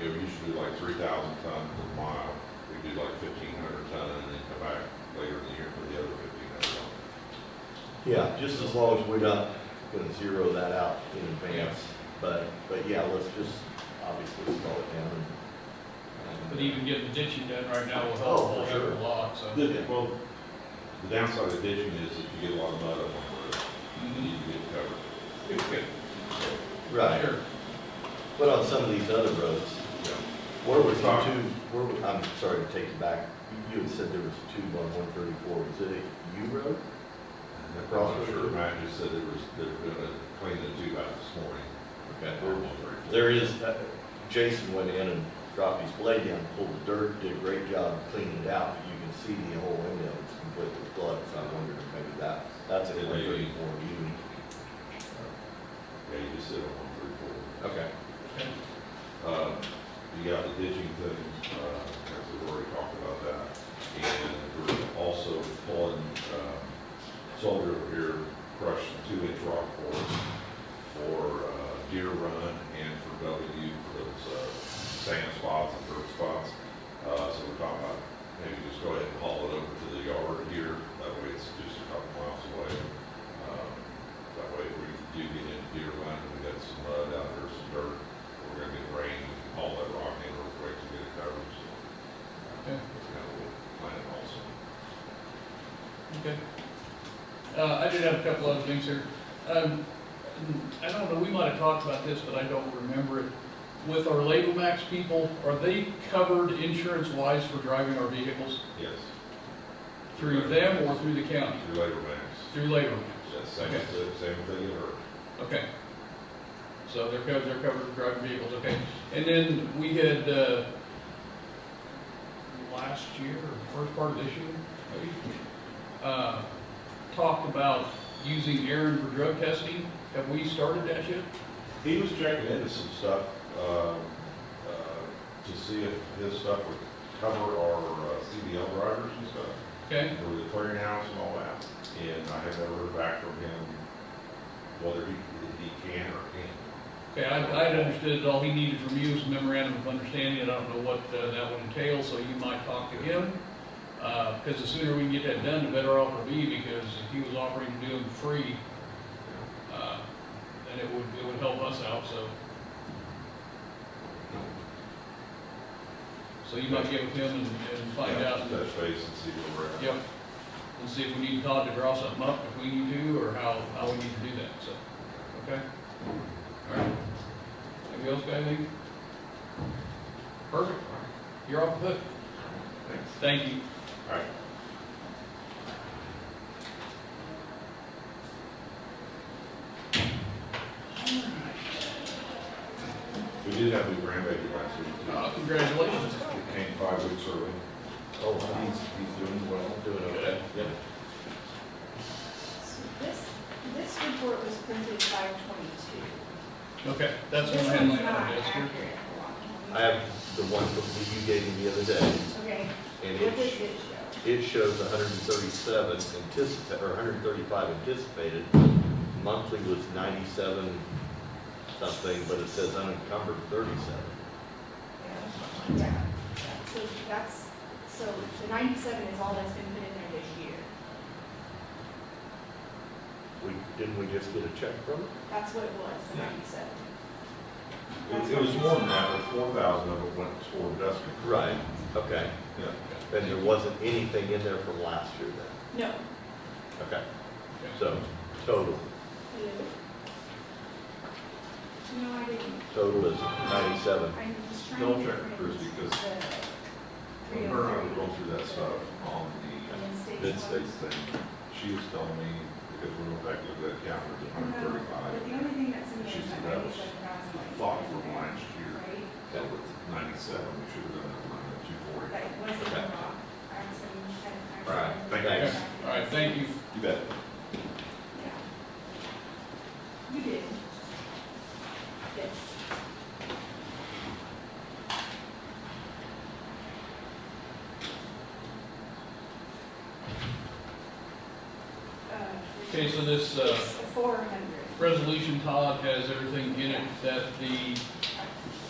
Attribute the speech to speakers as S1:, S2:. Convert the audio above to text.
S1: do like three thousand tons per mile. We do like fifteen hundred ton and then come back later in the year for the other fifteen hundred ton.
S2: Yeah, just as long as we're not gonna zero that out in advance, but, but yeah, let's just obviously slow it down. and-
S3: But even getting the ditching done right now will
S2: Oh,
S3: help
S2: for
S3: hold
S2: sure.
S3: up a lot, so.
S1: The- Well, the downside of ditching is if you get a lot of mud up on the road, you need to get it covered.
S2: uh, Right,
S3: Sure.
S2: but on some of these other roads,
S1: Yeah.
S2: where was the two,
S1: Sorry.
S2: where, was- I'm sorry to take you back, You- you had said there was two on one thirty-four, was it a U road?
S1: I'm not sure, Matt just said it was, they're gonna clean the tube out this morning.
S2: Okay.
S1: Or one thirty four.
S2: There is, uh, Jason went in and dropped his blade down, pulled the dirt, did a great job cleaning it out, but you can see the whole window, it's completely flooded, so I wondered if maybe that, that's
S1: It
S2: a
S1: may be.
S2: one thirty-four even.
S1: Yeah, you just said on one thirty-four.
S2: Okay.
S3: Okay.
S1: Uh, You got the ditching thing, uh, as we've already talked about that. And we're also pulling, um, soldier over here crushed two-inch rock for, for uh, Deer Run and for W for those uh, sand spots and dirt spots. Uh, So we're talking about maybe just go ahead and haul it over to the yard here. That way it's just a couple miles away. Um, That way if we do get into Deer Run, we got some mud out there, some dirt, we're gonna get rain, we can haul that rock in real quick to get it covered. So, uh,
S3: Okay.
S1: That's kind of what we're planning also.
S3: Okay. Uh, I did have a couple other things here. Um, I don't know, we might have talked about this, but I don't remember it. With our Label Max people, are they covered insurance-wise for driving our vehicles
S1: Yes,
S3: through them or through the county?
S1: through labor banks.
S3: Through Label Max?
S1: That's same,
S3: Okay.
S1: same thing, or
S3: Okay. So they're covered, they're covered for driving vehicles, okay. And then we had, uh, last year, or first part of this year, maybe, uh, talked about using Aaron for drug testing. Have we started that yet?
S1: he was checking into some stuff, um, uh, to see if his stuff would cover our uh, CDL drivers and stuff.
S3: Okay,
S1: for the clearinghouse and all that, and I have never heard back from him whether he, he can or can't.
S3: okay, I, I had understood that all he needed from you was a memorandum of understanding, and I don't know what uh, that would entail, so you might talk to him. Uh, because the sooner we can get that done, the better off we'll be, because if he was offering to do them free, uh, then it would, it would help us out, so. So you might get with him and, and find
S1: Yeah,
S3: out,
S1: Touch base and see where we're at.
S3: yep, and see if we need Todd to draw something up between you two, or how, how we need to do that, so, okay? All right, anybody else got anything? Perfect, you're off the hook,
S1: Thanks.
S3: thank you.
S1: All right. We did have a grandbaby last week,
S3: Uh,
S1: too.
S3: congratulations.
S1: It came five weeks early.
S2: Oh,
S1: He's, he's doing well.
S2: Doing okay,
S3: Good.
S2: yep.
S4: So This, this report was printed five twenty-two.
S3: Okay, that's what I had my other desk here.
S2: I have the one that you gave me the other day,
S4: Okay,
S2: and
S4: what does
S2: it,
S4: it
S2: it
S4: show?
S2: shows hundred and thirty-seven anticipa, or hundred and thirty-five anticipated. Monthly was ninety-seven something, but it says unencumbered thirty-seven.
S4: Yeah, so that's, so the ninety-seven is all that's been put in there this year.
S2: We, didn't we just get a check from it?
S4: That's what it was, the ninety-seven.
S1: It it was more than that, but four thousand of it went toward investment.
S2: Right, okay.
S1: Yeah.
S2: And there wasn't anything in there from last year then?
S4: No.
S2: Okay,
S3: Okay.
S2: so total,
S4: No, I didn't.
S2: total is ninety-seven.
S4: I'm just trying to.
S1: Don't check
S4: print oh
S1: Bruce, because
S4: the
S1: When her and I were
S4: 303.
S1: going through that stuff on the uh,
S4: Mid
S2: Mid
S1: states thing, she was telling me, because we went back to that calendar, it's hundred
S4: But the
S1: thirty-five,
S4: only thing that's in there
S1: She's
S4: is that
S1: about
S4: ninety-seven thousand.
S1: thought from last year.
S4: Right,
S1: So it's ninety-seven, we should have done that line at two forty.
S4: that wasn't
S2: Okay.
S4: wrong. I'm saying, I'm.
S1: Right, thank you.
S3: Okay, All right, thank you.
S1: You bet.
S4: Yeah. You did. Yes. Uh,
S3: Okay, so this, uh,
S4: It's four hundred.
S3: resolution, Todd, has everything in it that the